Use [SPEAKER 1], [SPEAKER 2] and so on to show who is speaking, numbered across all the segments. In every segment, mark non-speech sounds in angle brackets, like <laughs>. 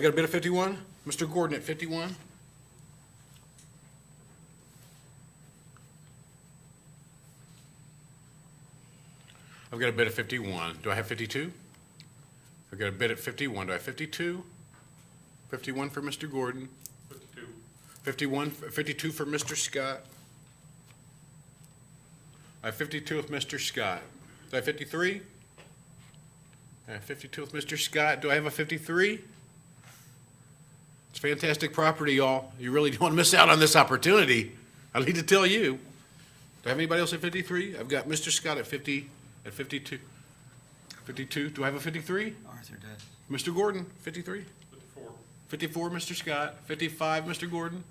[SPEAKER 1] I got a bid of 51. Mr. Gordon at 51. I've got a bid of 51. Do I have 52? I've got a bid at 51. Do I have 52? 51 for Mr. Gordon. 51, 52 for Mr. Scott. I have 52 with Mr. Scott. Do I have 53? I have 52 with Mr. Scott. Do I have a 53? It's fantastic property, y'all. You really <laughs> don't want to miss out on this opportunity. I need to tell you. Do I have anybody else at 53? I've got Mr. Scott at 50, at 52. 52, do I have a 53?
[SPEAKER 2] Arthur does.
[SPEAKER 1] Mr. Gordon, 53? 54. 54, Mr. Scott. 55, Mr. Gordon.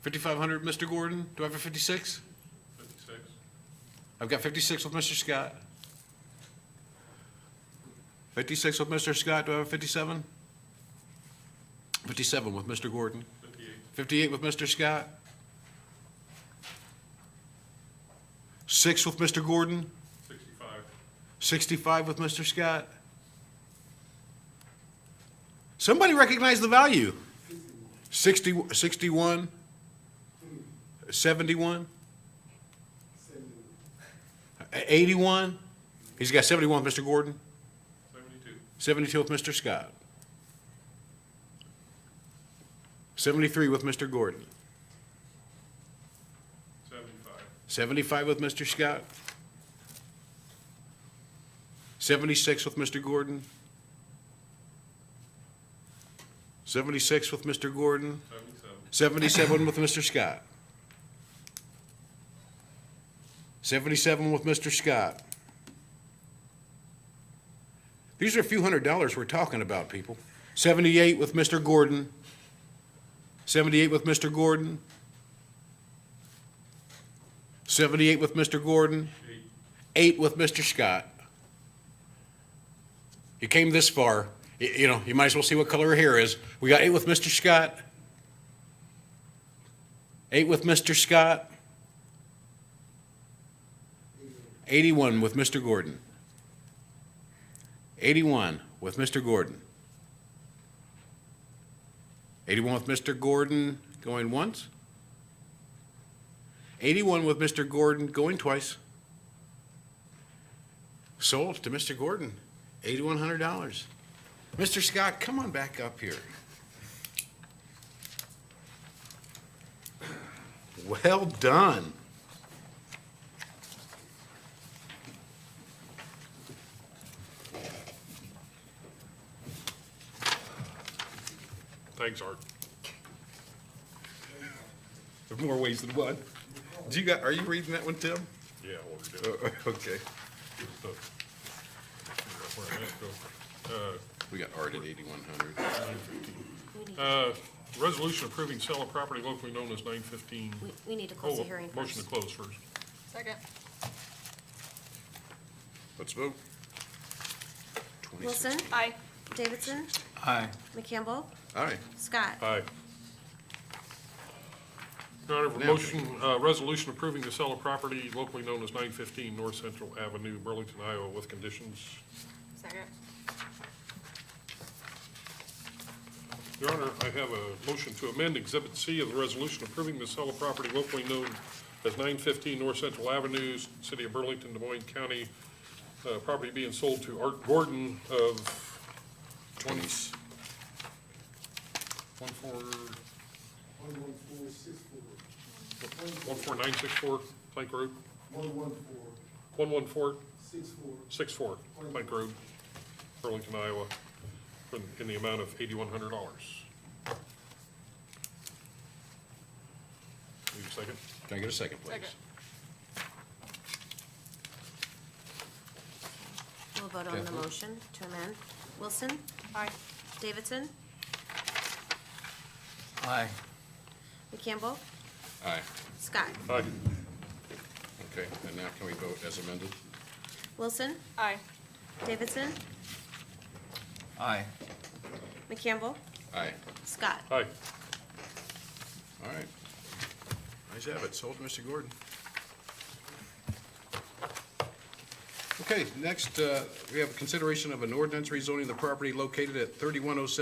[SPEAKER 1] 5,500, Mr. Gordon. Do I have a 56?
[SPEAKER 3] 56.
[SPEAKER 1] I've got 56 with Mr. Scott. 56 with Mr. Scott, do I have a 57? 57 with Mr. Gordon.
[SPEAKER 3] 58.
[SPEAKER 1] 58 with Mr. Scott. 6 with Mr. Gordon.
[SPEAKER 3] 65.
[SPEAKER 1] 65 with Mr. Scott. Somebody recognize the value. 60, 61, 71, 81. He's got 71 with Mr. Gordon,
[SPEAKER 3] 72.
[SPEAKER 1] 72 with Mr. Scott, 73 with Mr. Gordon,
[SPEAKER 3] 75.
[SPEAKER 1] 75 with Mr. Scott, 76 with Mr. Gordon, 76 with Mr. Gordon,
[SPEAKER 3] 77.
[SPEAKER 1] 77 with Mr. Scott. 77 with Mr. Scott. These are a few hundred dollars we're talking about, people. 78 with Mr. Gordon. 78 with Mr. Gordon. 78 with Mr. Gordon.
[SPEAKER 3] 8.
[SPEAKER 1] Eight with Mr. Scott. You came this far, y- you know, you might as well see what color her hair is. We got eight with Mr. Scott. Eight with Mr. Scott. 81 with Mr. Gordon. 81 with Mr. Gordon. 81 with Mr. Gordon going once. 81 with Mr. Gordon going twice. Sold to Mr. Gordon, eighty-one hundred dollars. Mr. Scott, come on back up here. Well done.
[SPEAKER 3] Thanks, Art.
[SPEAKER 4] There's more ways than one. Do you got, are you reading that one, Tim?
[SPEAKER 3] Yeah, well, we did.
[SPEAKER 4] Oh, <laughs> Okay.
[SPEAKER 3] Good stuff. Figure out where that goes. Uh,
[SPEAKER 1] We got art at eighty-one hundred.
[SPEAKER 3] Uh, Resolution approving sale of property locally known as 915.
[SPEAKER 5] We, we need to close the
[SPEAKER 3] Oh,
[SPEAKER 5] hearing first.
[SPEAKER 3] Motion to close first.
[SPEAKER 5] Second.
[SPEAKER 4] Let's vote.
[SPEAKER 5] Wilson? Aye. Davidson?
[SPEAKER 2] Aye.
[SPEAKER 5] McCampbell?
[SPEAKER 4] Aye.
[SPEAKER 5] Scott?
[SPEAKER 3] Aye. Your Honor, for motion, uh, resolution approving the sale of property locally known as 915 North Central Avenue, Burlington, Iowa, with conditions.
[SPEAKER 5] Second.
[SPEAKER 3] Your Honor, I have a motion to amend Exhibit C of the resolution approving the sale of property locally known as 915 North Central Avenue, City of Burlington, Des Moines County, uh, property being sold to Art Gordon of 20, 14
[SPEAKER 6] One one four six four,
[SPEAKER 3] 14964 Plank Road,
[SPEAKER 6] one one four
[SPEAKER 3] 11464
[SPEAKER 6] six four,
[SPEAKER 3] Plank Road, Burlington, Iowa, for- in the amount of $8,100. Need a second?
[SPEAKER 1] Can I get a second, please?
[SPEAKER 5] We'll vote on the motion to amend. Wilson? Aye. Davidson?
[SPEAKER 2] Aye.
[SPEAKER 5] McCampbell?
[SPEAKER 1] Aye.
[SPEAKER 5] Scott?
[SPEAKER 3] Aye.
[SPEAKER 1] Okay, and now can we vote as amended?
[SPEAKER 5] Wilson?
[SPEAKER 7] Aye.
[SPEAKER 5] Davidson?
[SPEAKER 2] Aye.
[SPEAKER 5] McCampbell?
[SPEAKER 1] Aye.
[SPEAKER 5] Scott?
[SPEAKER 3] Aye.
[SPEAKER 1] All right. Nice have it, sold to Mr. Gordon. Okay, next, uh, we have consideration of an ordinance rezoning the property located at 3107